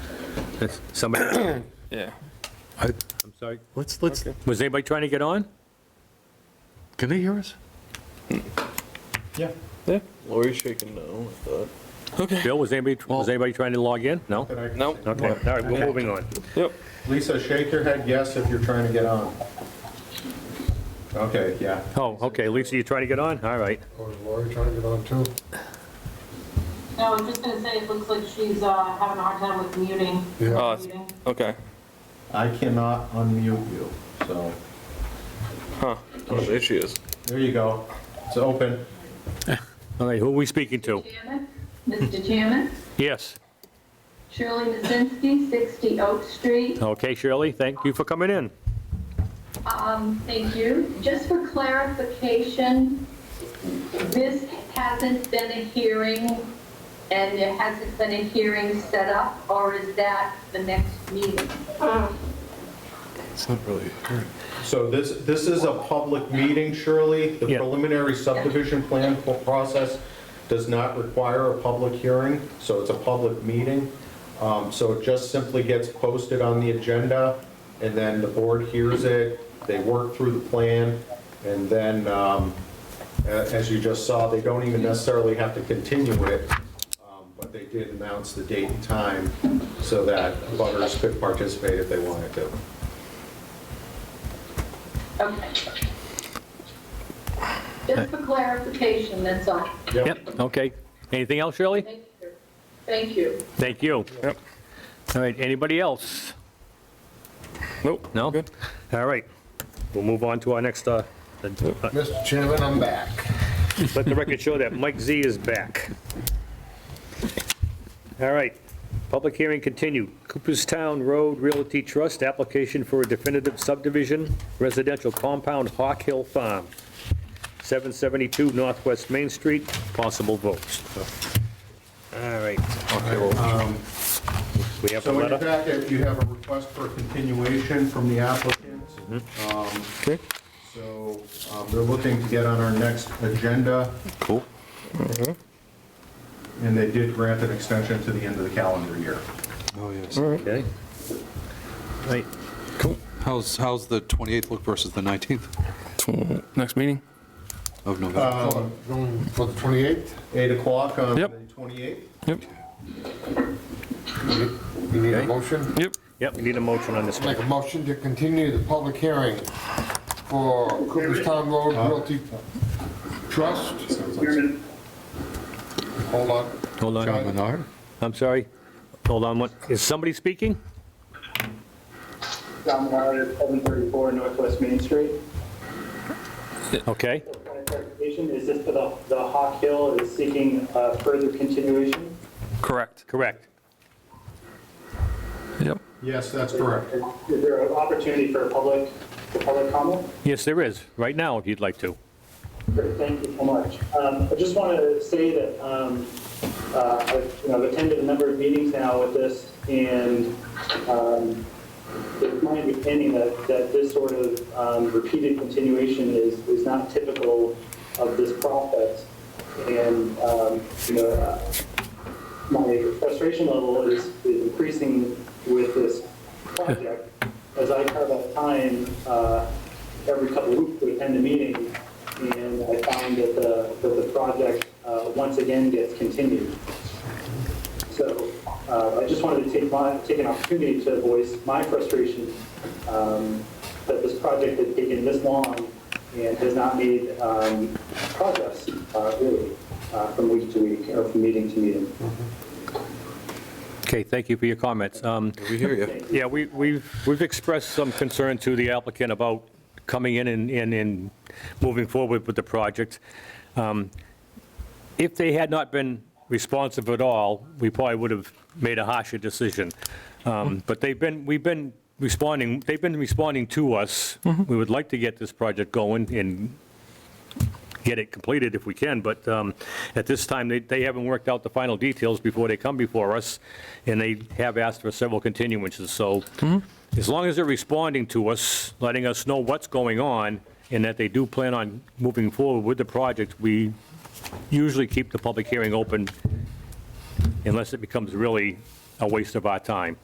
That's- Somebody, Yeah. I- I'm sorry, Let's, let's, Okay. was anybody trying to get on? can they hear us? Yeah. Lori's shaking no, I thought. Okay. Bill, was anybody, was anybody trying to log in? No? No. Okay, all right, we're moving on. Yep. Lisa, shake your head yes if you're trying to get on. Okay, yeah. Oh, okay, Lisa, you trying to get on? All right. Or Oh, is Lori trying to get on too? No, I was just gonna say, it looks like she's uh, having a hard time with muting. Yeah. Oh, it's- Muting. Okay. I cannot unmute you, so, Oh, there she is. there you go. It's open. All right, who are we speaking to? Chairman, Mr. Chairman, Yes. Shirley Mazinski, 60 Oak Street. Okay, Shirley, thank you for coming in. Um, Thank you. Just for clarification, this hasn't been a hearing, and there hasn't been a hearing set up, or is that the next meeting? It's not really. So this, this is a public meeting, Shirley. The Yeah. preliminary subdivision plan po- process does not require a public hearing, so it's a public meeting. Um, So it just simply gets posted on the agenda, and then the board hears it, they work through the plan, and then, um, a- as you just saw, they don't even necessarily have to continue it, um, but they did announce the date and time so that butters could participate if they wanted to. Okay. Just for clarification, that's all. Yep, okay. Anything else, Shirley? Thank you. Thank you. Thank you. Yep. All right, anybody else? Nope. No? Good. All right, we'll move on to our next, uh, uh, Mr. Chairman, I'm back. let the record show that Mike Z is back. All right, public hearing continued. Cooperstown Road Realty Trust, application for a definitive subdivision, residential compound Hawk Hill Farm, 772 Northwest Main Street, possible votes. All right. Um, We have a So in your letter? packet, you have a request for a continuation from the applicant. Um, Okay. So um, they're looking to get on our next agenda, Mm-hmm. Cool. and they did grant an extension to the end of the calendar year. Oh, yes. Okay. Right, Cool. How's, how's the 28th look versus the 19th Tw- Next meeting. of November? Um, Going for the 28th? 8 o'clock on the Yep. 28th. Yep. We need a motion? Yep. yep, we need a motion on this one. Make a motion to continue the public hearing for Cooperstown Road Realty Trust. Hold on. Hold on. John, Menard? I'm sorry, hold on, one- is somebody speaking? John Ward, 734 Northwest Main Street. Okay, Point of clarification, is this for the, the Hawk Hill is seeking uh, further continuation? Correct. correct. Yep. Yes, that's correct. Is there an opportunity for a public, for public comment? Yes, there is, right now, if you'd like to. Great, thank you so much. Um, I just want to say that, um, uh, I've, you know, I've attended a number of meetings now with this, and, um, it's my understanding that, that this sort of, um, repeated continuation is, is not typical of this process. And, um, you know, uh, my frustration level is, is increasing with this project. As I carve out time, uh, every couple of weeks to attend a meeting, and I find that the, that the project, uh, once again gets continued. So, uh, I just wanted to take my, take an opportunity to voice my frustration, um, that this project has taken this long and has not made, um, progress, uh, really, uh, from week to week, or from meeting to meeting. Okay, thank you for your comments. Um, We hear you. Yeah, we- we've we've expressed some concern to the applicant about coming in and- and and moving forward with the project. Um, If they had not been responsive at all, we probably would have made a harsher decision. Um, But they've been, we've been responding, they've been responding to us. We would like to get this project going and get it completed if we can, but um, at this time, they- they haven't worked out the final details before they come before us, and they have asked for several continuances, so as long as they're responding to us, letting us know what's going on, and that they do plan on moving forward with the project, we usually keep the public hearing open unless it becomes really a waste of our time.